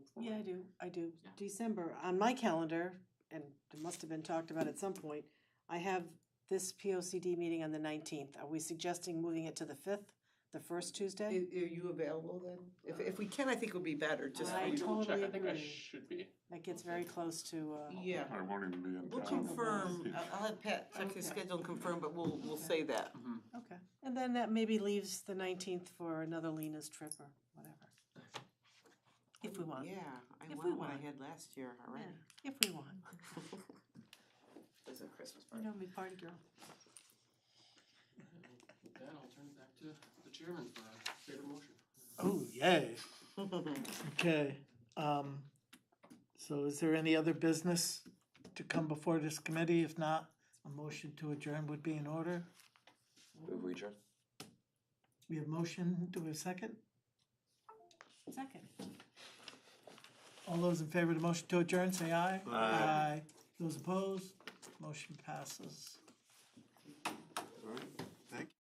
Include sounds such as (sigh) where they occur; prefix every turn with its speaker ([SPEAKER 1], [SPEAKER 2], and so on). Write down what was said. [SPEAKER 1] Yeah, I do, I do.
[SPEAKER 2] Yeah.
[SPEAKER 1] December, on my calendar, and it must have been talked about at some point, I have this P O C D meeting on the nineteenth. Are we suggesting moving it to the fifth, the first
[SPEAKER 3] Are
[SPEAKER 1] Tuesday?
[SPEAKER 3] you available then? If, if we can, I think it would be better, just,
[SPEAKER 1] I
[SPEAKER 2] Let me double check.
[SPEAKER 1] totally
[SPEAKER 2] I think I
[SPEAKER 1] agree.
[SPEAKER 2] should be.
[SPEAKER 1] That gets very close to, uh,
[SPEAKER 3] yeah.
[SPEAKER 4] I won't even be in town.
[SPEAKER 3] We'll confirm, Uh, I'll I'll have Pat check his schedule and confirm, but we'll, we'll say that.
[SPEAKER 5] Mm-hmm.
[SPEAKER 1] okay. And then that maybe leaves the nineteenth for another Lena's trip or whatever. If we want,
[SPEAKER 3] Yeah, I
[SPEAKER 1] If we
[SPEAKER 3] want what I
[SPEAKER 1] want.
[SPEAKER 3] had last year already.
[SPEAKER 1] if we want.
[SPEAKER 3] There's a Christmas
[SPEAKER 1] You
[SPEAKER 3] party.
[SPEAKER 1] know, me party girl.
[SPEAKER 2] With that, I'll turn it back to the chairman for a favorite motion.
[SPEAKER 6] Oh, yay.
[SPEAKER 3] (laughs)
[SPEAKER 6] Okay, um, so is there any other business to come before this committee? If not, a motion to adjourn would be in order.
[SPEAKER 5] Move we adjourn?
[SPEAKER 6] We have motion, do we have second?
[SPEAKER 1] Second.
[SPEAKER 6] All those in favor of the motion to adjourn, say aye.
[SPEAKER 5] Aye.
[SPEAKER 6] Those opposed, motion passes.